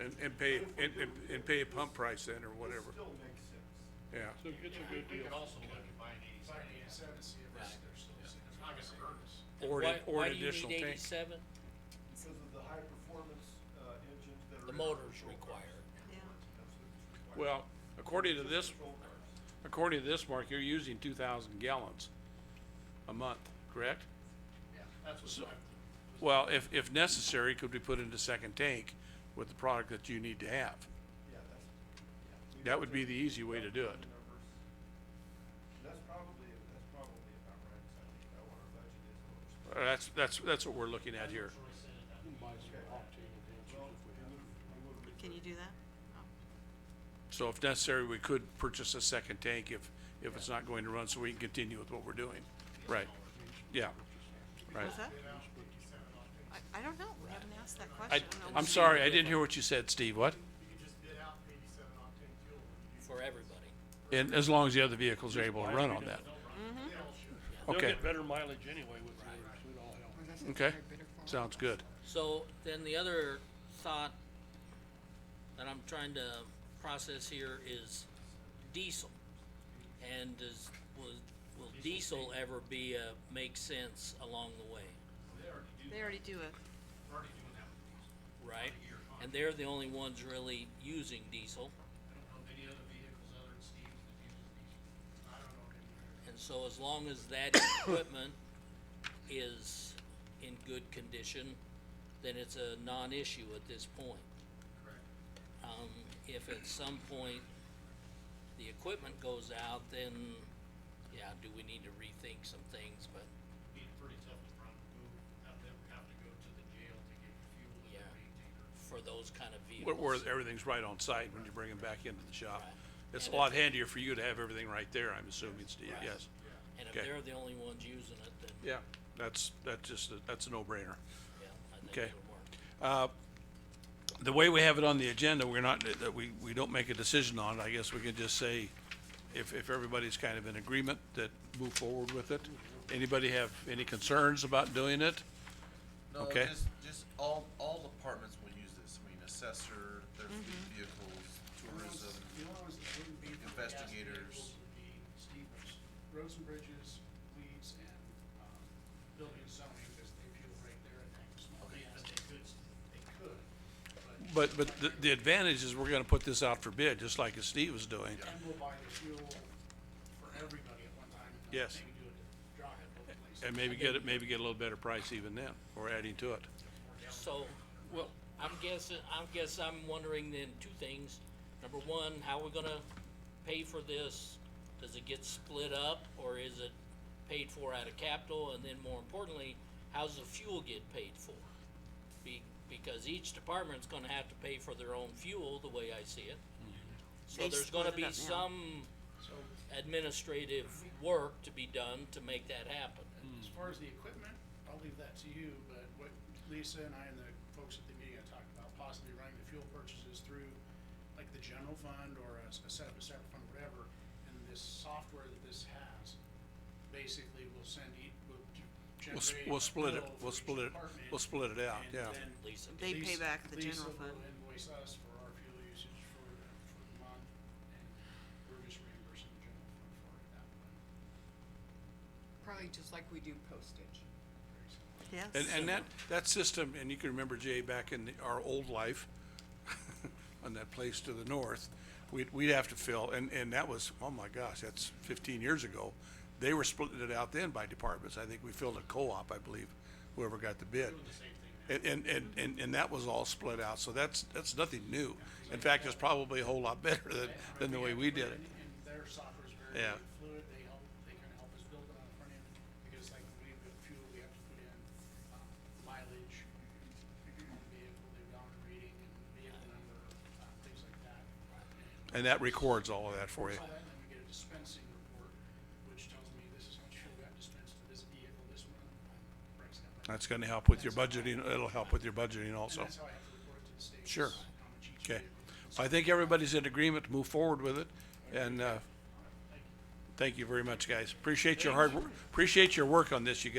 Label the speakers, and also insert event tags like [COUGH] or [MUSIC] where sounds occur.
Speaker 1: and, and pay, and, and- and pay a pump price then or whatever,
Speaker 2: Still makes sense.
Speaker 1: yeah.
Speaker 3: So it's a good
Speaker 4: We
Speaker 3: deal.
Speaker 4: could also look at buying eighty-seven. see if it's- there's still- it's not gonna hurt us.
Speaker 5: And
Speaker 1: Or an-
Speaker 5: why-
Speaker 1: or an additional
Speaker 5: Why do you need
Speaker 1: tank.
Speaker 5: eighty-seven?
Speaker 2: Because of the high performance, uh, engines that are.
Speaker 5: The
Speaker 2: in
Speaker 5: motor's
Speaker 2: patrol cars.
Speaker 5: required.
Speaker 2: That's what it's required.
Speaker 1: Well, according to
Speaker 2: Just
Speaker 1: this,
Speaker 2: patrol cars.
Speaker 1: according to this, Mark, you're using two thousand gallons a month, correct?
Speaker 4: That's what's.
Speaker 1: So-
Speaker 4: my-
Speaker 1: Well, if, if necessary, could we put in a second tank with the product that you need to have?
Speaker 2: Yeah, that's. yeah. We
Speaker 1: That
Speaker 2: don't
Speaker 1: would be
Speaker 2: take
Speaker 1: the easy way to do it.
Speaker 2: numbers. And That's probably, that's probably about right, 'cause I think about what our budget is. and what we're spending.
Speaker 1: Uh, That's, that's, that's what we're looking at here.
Speaker 3: Buy some octane enhancers
Speaker 2: Well,
Speaker 3: if we
Speaker 2: we
Speaker 3: have.
Speaker 2: would, we would.
Speaker 6: Can you do that?
Speaker 1: So if necessary, we could purchase a second tank if, if it's not going to run, so we can continue with what we're doing. Right, yeah, right.
Speaker 6: What's that? I, I don't know, we haven't asked that
Speaker 1: I,
Speaker 6: question. I don't know
Speaker 1: I'm
Speaker 6: what-
Speaker 1: sorry, I didn't hear what you said, Steve, what?
Speaker 5: For everybody.
Speaker 1: And as long as the other vehicles are able to run on that.
Speaker 3: They'll
Speaker 1: Okay,
Speaker 3: get better mileage anyway with yours, it all helps.
Speaker 1: okay, sounds good.
Speaker 5: So then the other thought that I'm trying to process here is diesel. And does, will, will diesel ever be a, make sense along the way,
Speaker 6: They already do it.
Speaker 5: right? And they're the only ones really using diesel,
Speaker 4: I don't know of any other vehicles other than Steve's that uses these. I don't know of any.
Speaker 5: and so as long as that equipment is in good condition, then it's a non-issue at this point.
Speaker 4: Correct.
Speaker 5: um, if at some point the equipment goes out, then, yeah, do we need to rethink some things, but,
Speaker 4: Be pretty tough to run, move, have them have to go to the jail to get fuel and
Speaker 5: Yeah.
Speaker 4: maintain their
Speaker 5: for those kind of
Speaker 1: Where,
Speaker 5: vehicles.
Speaker 1: where everything's right on site when you bring them back into the shop. It's a
Speaker 5: And
Speaker 1: lot handier for you to have everything right there, I'm assuming, Steve,
Speaker 5: Right.
Speaker 1: yes.
Speaker 5: And if
Speaker 1: okay.
Speaker 5: they're the only ones using it, then, yeah,
Speaker 1: Yeah, that's, that's just, a- that's a no-brainer.
Speaker 5: I think
Speaker 1: Okay.
Speaker 5: it'll work.
Speaker 1: The way we have it on the agenda, we're not, that we, we don't make a decision on, it. I guess we could just say, if, if everybody's kind of in agreement, that move forward with it. Anybody have any concerns about doing it?
Speaker 7: No,
Speaker 1: Okay.
Speaker 7: just, just all, all departments will use this, I mean, assessor, their fleet
Speaker 2: Mm-hmm.
Speaker 7: vehicles, tourism,
Speaker 8: You know, it wouldn't be for gas
Speaker 7: investigators.
Speaker 8: vehicles, would be Stevens, roads and bridges, weeds and, um, building and zoning, because they fuel right there at Angus Mall.
Speaker 7: Okay.
Speaker 8: But they could, they could, but,
Speaker 1: But, but the, the advantage is we're gonna put this out for bid, just like as Steve was doing.
Speaker 8: and we'll buy the fuel for everybody at one time. and
Speaker 1: Yes.
Speaker 8: Maybe do it at Dry at both places.
Speaker 1: And maybe get it, maybe get a little better price even then, or adding to it.
Speaker 5: So, well, I'm guessing, I'm guess I'm wondering then two things. Number one, how we gonna pay for this? Does it get split up or is it paid for out of capital? And then more importantly, how's the fuel get paid for? Be, because each department's gonna have to pay for their own fuel, the way I see it. So
Speaker 6: They
Speaker 5: there's gonna
Speaker 6: split it
Speaker 5: be
Speaker 6: up now.
Speaker 5: some administrative work to be done to make that happen.
Speaker 8: As
Speaker 1: Hmm.
Speaker 8: far as the equipment, I'll leave that to you, but what Lisa and I and the folks at the meeting had talked about possibly running the fuel purchases through like the general fund or a, s- a set up a separate fund, whatever, and this software that this has basically will send e will g-
Speaker 1: We'll, s-
Speaker 8: generate.
Speaker 1: we'll
Speaker 8: a
Speaker 1: split it,
Speaker 8: bill
Speaker 1: we'll
Speaker 8: for each
Speaker 1: split it,
Speaker 8: department,
Speaker 1: we'll split it out,
Speaker 8: and
Speaker 1: yeah.
Speaker 8: then
Speaker 5: Lisa,
Speaker 6: They pay
Speaker 8: Lisa-
Speaker 6: back the general
Speaker 8: Lisa will
Speaker 6: fund.
Speaker 8: invoice us for our fuel usage for, the- for the month, and we're just reimbursing the general fund for it at that point.
Speaker 9: Probably just like we do postage.
Speaker 8: Very simple.
Speaker 6: Yes.
Speaker 1: And, and that, that system, and you can remember Jay back in the- our old life, [LAUGHS] on that place to the north, we'd, we'd have to fill, and, and that was, oh my gosh, that's fifteen years ago. They were splitting it out then by departments. I think we filled a co-op, I believe, whoever got the bid. And, and, and, and, and that was all split out, so that's, that's nothing new. In fact, it's probably a whole lot better than, than the way we did it.
Speaker 8: And their software is very
Speaker 1: Yeah.
Speaker 8: fluid, they help, they can help us build it on the front end, because like we with fuel, we have to put in um, mileage, on the vehicle, the odometer reading, and vehicle number, uh, things like that. And
Speaker 1: And that records all of that for you.
Speaker 8: all that, and then we get a dispensing report, which tells me this is how much fuel we have dispensed to this vehicle, this one, um, breaks down. by-
Speaker 1: That's gonna help with your budgeting, it'll help with your budgeting also.
Speaker 8: And that's how I have to report it to the state.
Speaker 1: Sure.
Speaker 8: is how much each
Speaker 1: Okay,
Speaker 8: vehicle is.
Speaker 1: so I think everybody's in agreement to move forward with it, and, uh, thank you very much, guys. Appreciate your hard, work. appreciate your work on this, you guys.